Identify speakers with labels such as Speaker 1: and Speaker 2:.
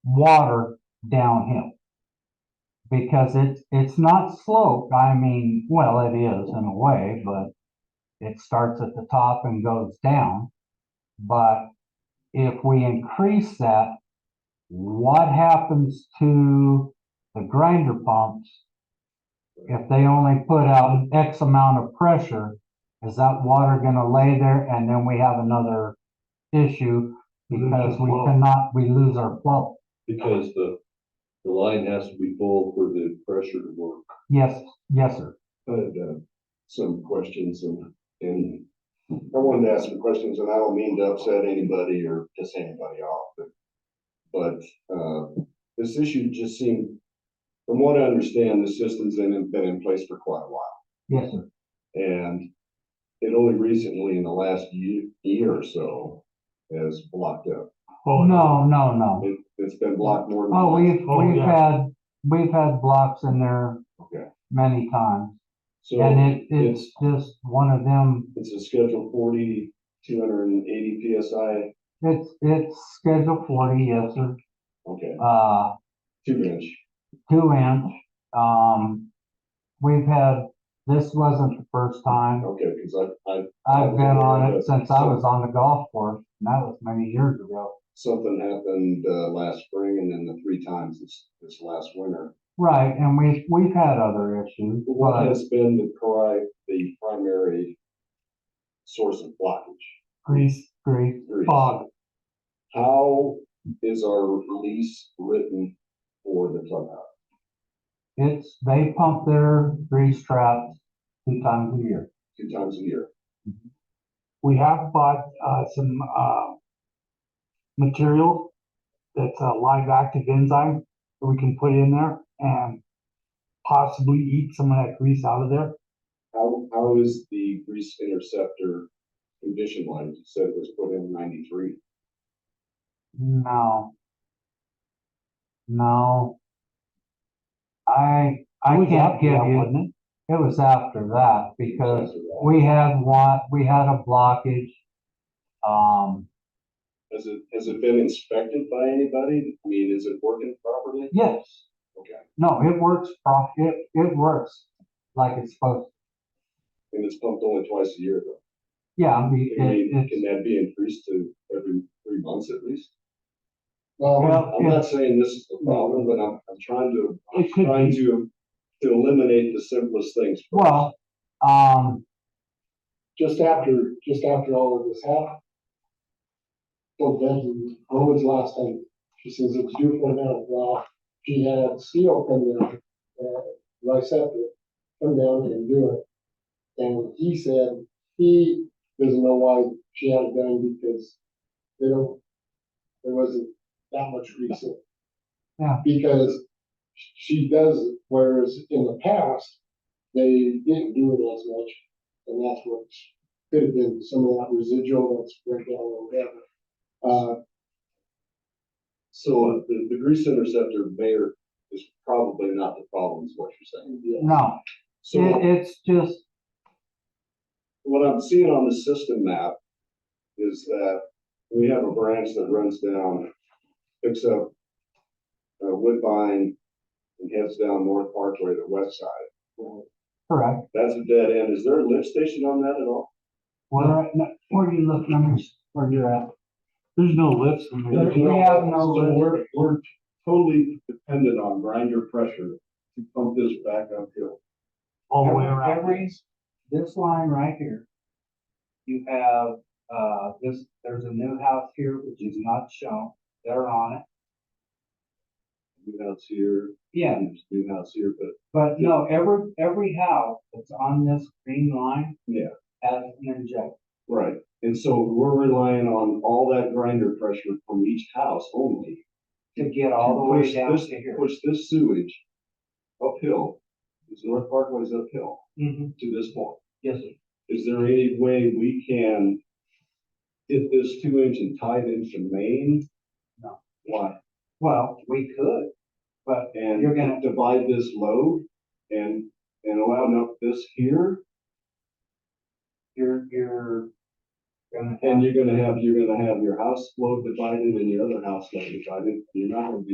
Speaker 1: water downhill. Because it's, it's not sloped, I mean, well, it is in a way, but it starts at the top and goes down. But if we increase that, what happens to the grinder pumps? If they only put out X amount of pressure, is that water gonna lay there and then we have another issue?
Speaker 2: Lose
Speaker 1: Because
Speaker 2: the
Speaker 1: we
Speaker 2: flow.
Speaker 1: cannot, we lose our flow.
Speaker 2: Because the, the line has to be full for the pressure to work.
Speaker 1: Yes, yes, sir.
Speaker 2: I had, uh, some questions and, and
Speaker 3: I wanted to ask some questions and I don't mean to upset anybody or piss anybody off, but. But, uh, this issue just seemed, from what I understand, the system's been, been in place for quite a while.
Speaker 1: Yes, sir.
Speaker 3: And it only recently in the last year, year or so has blocked up.
Speaker 1: Oh, No, no, no.
Speaker 3: It, it's been blocked more than.
Speaker 1: Oh,
Speaker 3: once.
Speaker 1: we've,
Speaker 2: Oh,
Speaker 1: we've
Speaker 2: yeah.
Speaker 1: had, we've had blocks in there
Speaker 3: Okay.
Speaker 1: many times.
Speaker 3: So
Speaker 1: And it,
Speaker 3: it's,
Speaker 1: it's just one of them,
Speaker 3: it's a schedule forty, two hundred and eighty PSI.
Speaker 1: it's, it's schedule forty, yes, sir.
Speaker 3: Okay,
Speaker 1: Uh,
Speaker 3: two inch.
Speaker 1: two inch. Um, we've had, this wasn't the first time.
Speaker 3: Okay, because I, I
Speaker 1: I've been on it since I was on the golf course, and that was many years ago.
Speaker 3: something happened uh, last spring and then the three times this, this last winter.
Speaker 1: Right, and we've, we've had other issues,
Speaker 3: What
Speaker 1: but
Speaker 3: has been the pri, the primary source of blockage?
Speaker 1: grease, grease,
Speaker 3: Grease.
Speaker 1: fog.
Speaker 3: How is our lease written for the clubhouse?
Speaker 1: It's, they pump their grease traps two times a year.
Speaker 3: Two times a year?
Speaker 4: We have bought, uh, some, uh, material that's a live active enzyme that we can put in there and possibly eat some of that grease out of there.
Speaker 3: How, how is the grease interceptor condition line? You said it was put in ninety-three.
Speaker 1: No. No. I, I
Speaker 4: It was
Speaker 1: can't
Speaker 4: after
Speaker 1: give
Speaker 4: that,
Speaker 1: you,
Speaker 4: wasn't
Speaker 1: it was after that because
Speaker 3: After that,
Speaker 1: We had one, we had a blockage. Um,
Speaker 3: Has it, has it been inspected by anybody? I mean, is it working properly?
Speaker 1: yes,
Speaker 3: Okay.
Speaker 1: no, it works, pro- it, it works like it's supposed,
Speaker 3: And it's pumped only twice a year though?
Speaker 1: yeah, I mean,
Speaker 3: I mean,
Speaker 4: Mm-hmm.
Speaker 1: it,
Speaker 3: can
Speaker 1: it's,
Speaker 3: that be increased to every three months at least?
Speaker 1: Well,
Speaker 3: I'm not saying this is the problem, but I'm, I'm trying to, I'm
Speaker 4: It could
Speaker 3: trying
Speaker 4: be.
Speaker 3: to, to eliminate the simplest things. first.
Speaker 1: well, um,
Speaker 5: just after, just after all of this happened. So then, when was the last time, she says it was due for a minute, well, she had steel come down, uh, Lysander, come down and do it. And he said, he doesn't know why she had it done, because they don't, there wasn't that much reason.
Speaker 1: Yeah.
Speaker 5: Because she does, it, whereas in the past, they didn't do it as much, and that's what could have been some of that residual that's breakdown or whatever. Uh,
Speaker 3: So uh, the, the grease interceptor mayor is probably not the problem is what you're saying.
Speaker 5: yeah.
Speaker 1: no,
Speaker 3: So
Speaker 1: it, it's just,
Speaker 3: what I'm seeing on the system map is that we have a branch that runs down, picks up uh, Woodbine and heads down North Parkway to West Side.
Speaker 1: correct.
Speaker 3: That's a dead end. Is there a lift station on that at all?
Speaker 1: Where, where you look, let me, where you're at.
Speaker 2: there's no lifts in
Speaker 1: There-
Speaker 2: there.
Speaker 1: We have no
Speaker 3: So
Speaker 1: lift.
Speaker 3: we're, we're totally dependent on grinder pressure to pump this back uphill.
Speaker 2: all the way
Speaker 1: Every-
Speaker 2: around.
Speaker 1: Every, this line right here, you have, uh, this, there's a new house here which is not shown, they're on it.
Speaker 3: New house here,
Speaker 1: Yeah,
Speaker 3: and there's new house here, but
Speaker 1: But no, every, every house that's on this green line.
Speaker 3: Yeah.
Speaker 1: Has an injector.
Speaker 3: Right, and so we're relying on all that grinder pressure from each house only.
Speaker 1: to get all the
Speaker 3: Push
Speaker 1: way down
Speaker 3: this-
Speaker 1: to here.
Speaker 3: Push this sewage uphill, because North Parkway's uphill
Speaker 1: Mhm.
Speaker 3: to this point.
Speaker 1: Yes, sir.
Speaker 3: Is there any way we can get this two inch and tie it into Maine?
Speaker 1: No.
Speaker 3: Why?
Speaker 1: Well, we could, but
Speaker 3: And
Speaker 1: you're gonna,
Speaker 3: divide this load and, and allow enough this here,
Speaker 1: you're, you're. gonna have
Speaker 3: and you're gonna have, you're gonna have your house load divided and your other house load divided. You're not gonna be